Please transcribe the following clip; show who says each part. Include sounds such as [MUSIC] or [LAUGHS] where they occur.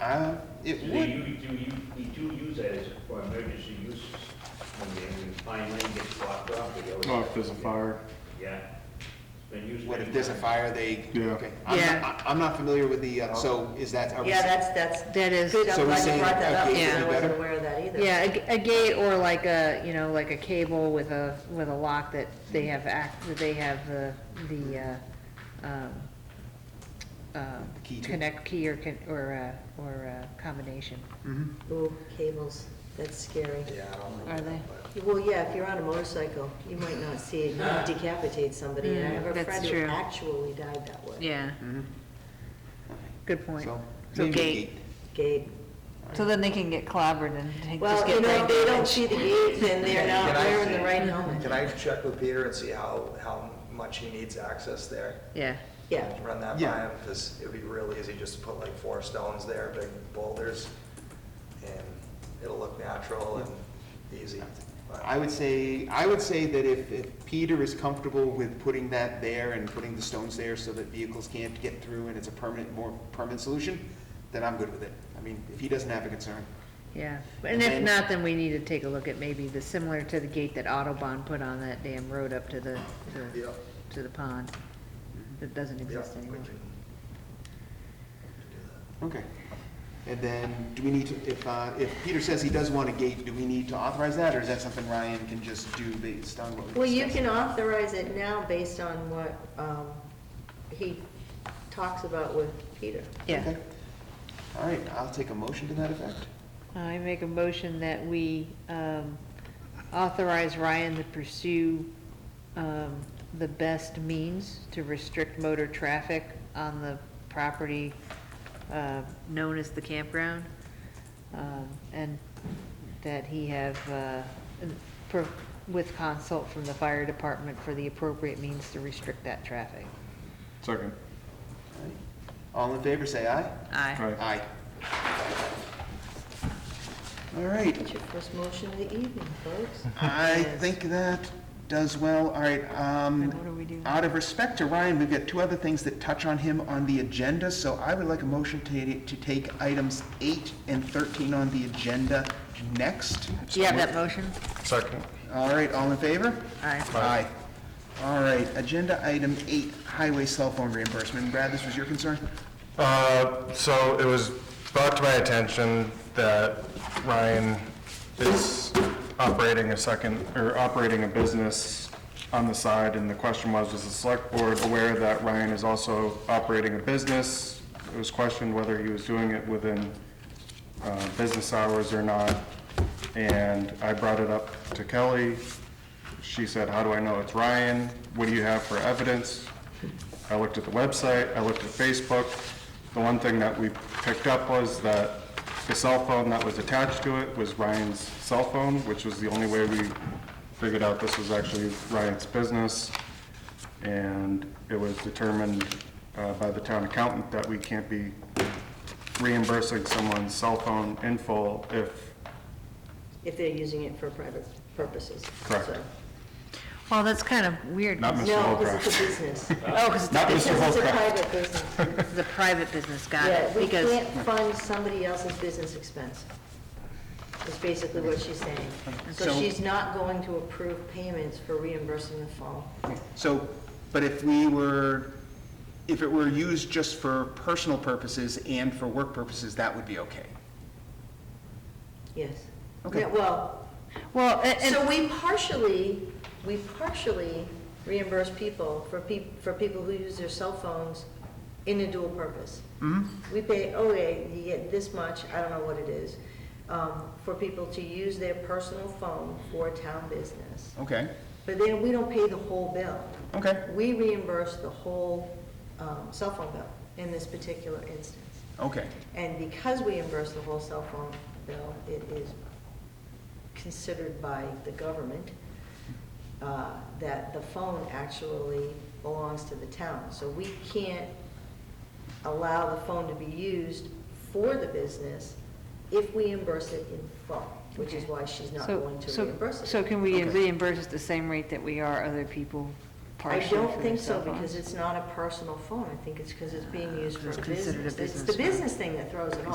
Speaker 1: Uh, it
Speaker 2: Do
Speaker 1: would,
Speaker 2: you, do you, we do use that as for emergency use, when the when the fine line gets blocked off, they always.
Speaker 3: Oh, if there's a fire,
Speaker 2: Yeah. It's been used
Speaker 1: what if
Speaker 2: many
Speaker 1: there's a
Speaker 2: times.
Speaker 1: fire, they,
Speaker 3: Yeah.
Speaker 1: okay. I'm not-
Speaker 4: Yeah.
Speaker 1: I- I'm not familiar with the, uh, so is that, are we?
Speaker 5: Yeah, that's, that's,
Speaker 4: That is,
Speaker 5: good,
Speaker 1: So
Speaker 5: I'm
Speaker 1: we're
Speaker 5: glad you
Speaker 1: saying
Speaker 5: brought that up,
Speaker 1: a
Speaker 5: because
Speaker 4: gate would
Speaker 5: I
Speaker 1: be
Speaker 5: wasn't
Speaker 1: better?
Speaker 5: aware of that either.
Speaker 4: yeah, a g- a gate or like a, you know, like a cable with a, with a lock that they have act, that they have the, the, uh, um, uh,
Speaker 1: Key to?
Speaker 4: connect key or, con- or, uh, or uh, combination.
Speaker 1: Mhm.
Speaker 5: Ooh, cables, that's scary.
Speaker 6: Yeah, I don't
Speaker 4: Are
Speaker 6: remember.
Speaker 4: they?
Speaker 5: Well, yeah, if you're on a motorcycle, you might not see it, you might decapitate somebody, and I
Speaker 4: Mm,
Speaker 5: have a
Speaker 4: that's
Speaker 5: friend who
Speaker 4: true.
Speaker 5: actually died that way.
Speaker 4: Yeah,
Speaker 1: Mhm.
Speaker 4: good point.
Speaker 1: So,
Speaker 4: So
Speaker 1: maybe a
Speaker 4: gate.
Speaker 5: Gate.
Speaker 4: So then they can get clobbered and take-
Speaker 5: Well,
Speaker 4: just
Speaker 5: you
Speaker 4: get
Speaker 5: know,
Speaker 4: brain
Speaker 5: if they don't
Speaker 4: damage.
Speaker 5: see the gate, then they're not
Speaker 6: Can I
Speaker 5: wearing
Speaker 6: see?
Speaker 5: the right helmet.
Speaker 6: Can I check with Peter and see how, how much he needs access there?
Speaker 4: Yeah,
Speaker 5: Yeah,
Speaker 6: Run that by
Speaker 1: Yeah.
Speaker 6: him, because it'd be real easy just to put like four stones there, big boulders, and it'll look natural and easy. but-
Speaker 1: I would say, I would say that if, if Peter is comfortable with putting that there and putting the stones there so that vehicles can't get through and it's a permanent, more permanent solution, then I'm good with it. I mean, if he doesn't have a concern.
Speaker 4: yeah. And if not, then we need to take a look at maybe the, similar to the gate that Autobahn put on that damn road up to the,
Speaker 6: Yeah,
Speaker 4: the, to the pond. That doesn't
Speaker 6: yeah,
Speaker 4: exist
Speaker 6: we
Speaker 4: anymore.
Speaker 6: can-
Speaker 1: Okay. And then, do we need to, if, uh, if Peter says he does want a gate, do we need to authorize that, or is that something Ryan can just do based on what we discussed?
Speaker 5: well, you can authorize it now based on what, um, he talks about with Peter.
Speaker 4: Yeah.
Speaker 1: Okay. All right, I'll take a motion to that effect.
Speaker 4: I make a motion that we um, authorize Ryan to pursue um, the best means to restrict motor traffic on the property uh, known as the campground. um, And that he have, uh, pro- with consult from the fire department for the appropriate means to restrict that traffic.
Speaker 3: second.
Speaker 1: All right. All in favor, say aye.
Speaker 4: Aye.
Speaker 3: Aye.
Speaker 1: Aye. All right,
Speaker 5: That's your first motion of the evening, folks.
Speaker 4: [LAUGHS]
Speaker 1: I
Speaker 4: Yes.
Speaker 1: think that does well. All right, um,
Speaker 4: And what do we do?
Speaker 1: out of respect to Ryan, we've got two other things that touch on him on the agenda, so I would like a motion to, to take items eight and thirteen on the agenda next.
Speaker 4: Do you have that motion?
Speaker 3: Second.
Speaker 1: All right, all in favor?
Speaker 4: Aye.
Speaker 1: Aye. All right, agenda item eight, highway cell phone reimbursement. Brad, this was your concern?
Speaker 7: Uh, So it was brought to my attention that Ryan is operating a second, or operating a business on the side, and the question was, is the select board aware that Ryan is also operating a business? It was questioned whether he was doing it within uh, business hours or not, and I brought it up to Kelly. She said, how do I know it's Ryan? What do you have for evidence? I looked at the website, I looked at Facebook. The one thing that we picked up was that the cell phone that was attached to it was Ryan's cell phone, which was the only way we figured out this was actually Ryan's business. And it was determined uh, by the town accountant that we can't be reimbursing someone's cell phone in full if,
Speaker 5: If they're using it for private purposes.
Speaker 7: Correct.
Speaker 5: so.
Speaker 4: Well, that's kind of weird.
Speaker 7: not Mr.
Speaker 5: No,
Speaker 7: Holcraft.
Speaker 5: because it's a business.
Speaker 4: Oh, because
Speaker 7: Not
Speaker 5: Because
Speaker 7: Mr.
Speaker 5: it's a
Speaker 7: Holcraft.
Speaker 5: private business.
Speaker 4: it's a private business, got
Speaker 5: Yeah,
Speaker 4: it?
Speaker 5: we
Speaker 4: Because.
Speaker 5: can't fund somebody else's business expense, is basically what she's saying. So
Speaker 1: So-
Speaker 5: she's not going to approve payments for reimbursing the phone.
Speaker 1: So, but if we were, if it were used just for personal purposes and for work purposes, that would be okay.
Speaker 5: Yes.
Speaker 1: Okay.
Speaker 5: Yeah, Well,
Speaker 4: Well, a- and,
Speaker 5: so we partially, we partially reimburse people for peop, for people who use their cell phones in a dual purpose. We pay, okay, you get this much, I don't know what it is, um, for people to use their personal phone for town business.
Speaker 1: Okay,
Speaker 5: But then we don't pay the whole bill.
Speaker 1: okay,
Speaker 5: We reimburse the whole um, cell phone bill in this particular instance.
Speaker 1: okay.
Speaker 5: And because we reimburse the whole cell phone bill, it is considered by the government uh, that the phone actually belongs to the town. So we can't allow the phone to be used for the business if we reimburse it in full, which is
Speaker 4: Okay.
Speaker 5: why she's not
Speaker 4: so,
Speaker 5: going to
Speaker 4: so,
Speaker 5: reimburse it.
Speaker 4: so can we
Speaker 1: Okay.
Speaker 4: reimburse at the same rate that we are other people
Speaker 5: I
Speaker 4: partially
Speaker 5: don't
Speaker 4: for their
Speaker 5: think so,
Speaker 4: cell phones?
Speaker 5: because it's not a personal phone, I think it's because it's being used for
Speaker 4: It's
Speaker 5: a
Speaker 4: considered a
Speaker 5: business. It's the
Speaker 4: business phone.
Speaker 5: business thing that throws it off.